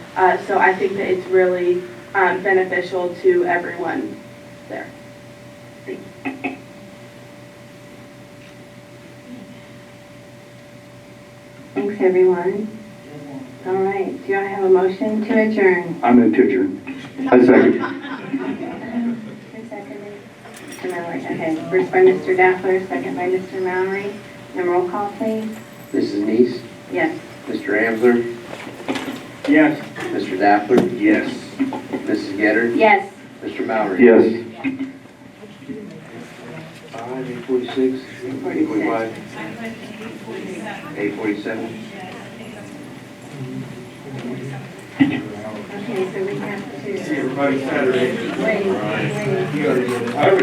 Uh, so I think that it's really um, beneficial to everyone there. Thanks, everyone. All right, do I have a motion to adjourn? I'm in teacher. I second. Who seconded? Mr. Mallory, okay. First by Mr. Daffler, second by Mr. Mallory. And roll call, please. Mrs. Neese, Yes. Mr. Ambler, Yes. Mr. Dappler, Yes. Mrs. Getter, Yes. Mr. Mallory. Yes. Five, eight forty-six, eight forty-five. Eight forty-seven. Okay, so we have to. Everybody Saturday. Wait, wait. I